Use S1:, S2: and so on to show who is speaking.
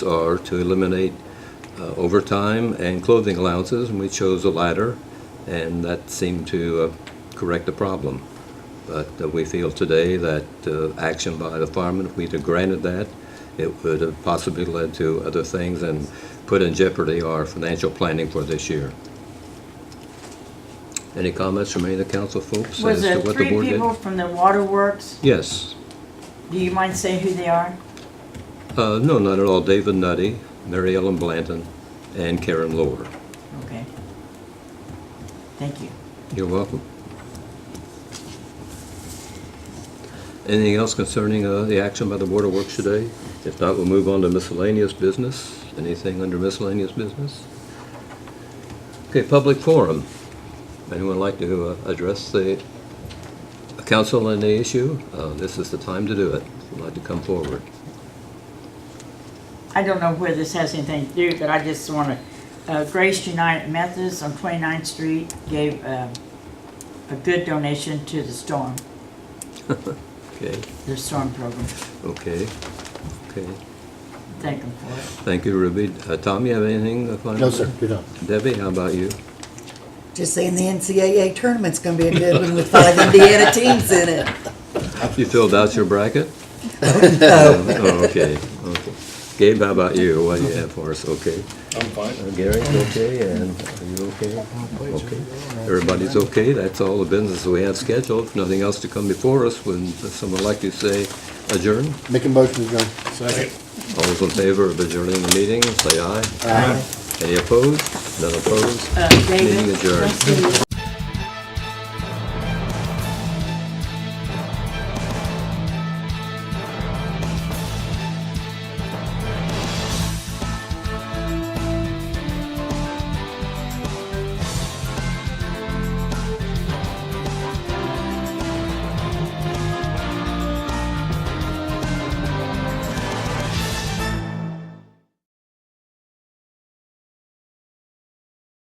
S1: are to eliminate uh, overtime and clothing allowances, and we chose the latter, and that seemed to uh, correct the problem. But uh, we feel today that uh, action by the firemen, if we'd have granted that, it would have possibly led to other things and put in jeopardy our financial planning for this year. Any comments from any of the council folks as
S2: Was
S1: to
S2: it
S1: what the
S2: three
S1: board did?
S2: people from the waterworks?
S1: Yes.
S2: Do you mind saying who they are?
S1: Uh, No, not at all. David Nutty, Mary Ellen Blanton, and Karen Lohr.
S2: Okay. Thank you.
S1: You're welcome. Anything else concerning uh, the action by the Board of Works today? If not, we'll move on to miscellaneous business. Anything under miscellaneous business? Okay, public forum. Anyone like to uh, address the council on the issue? Uh, This is the time to do it. If you'd like to come forward.
S2: I don't know where this has anything to do, but I just want to, Grace United Methodist on 29th Street gave uh, a good donation to the storm,
S1: Okay,
S2: the storm program.
S1: okay, okay.
S2: Thank them for it.
S1: Thank you, Ruby. Uh, Tom, you have anything? to find
S3: No,
S1: out?
S3: sir, you don't.
S1: Debbie, how about you?
S4: Just saying the NCAA tournament's gonna be a good one with five Indiana teams in it.
S1: You filled out your bracket?
S4: No,
S1: Oh, okay, okay. Gabe, how about you? What do you have for us? Okay.
S5: I'm fine.
S1: Uh, Gary, you okay? And are you okay? Okay. Everybody's okay? That's all the business we have scheduled. If Nothing else to come before us. Would someone like to say adjourn?
S3: Make a motion to adjourn.
S1: All those in favor of adjourning the meeting, say aye. Aye. Any opposed? None opposed?
S2: Uh,
S1: Meeting
S2: David,
S1: adjourned.
S2: let's see.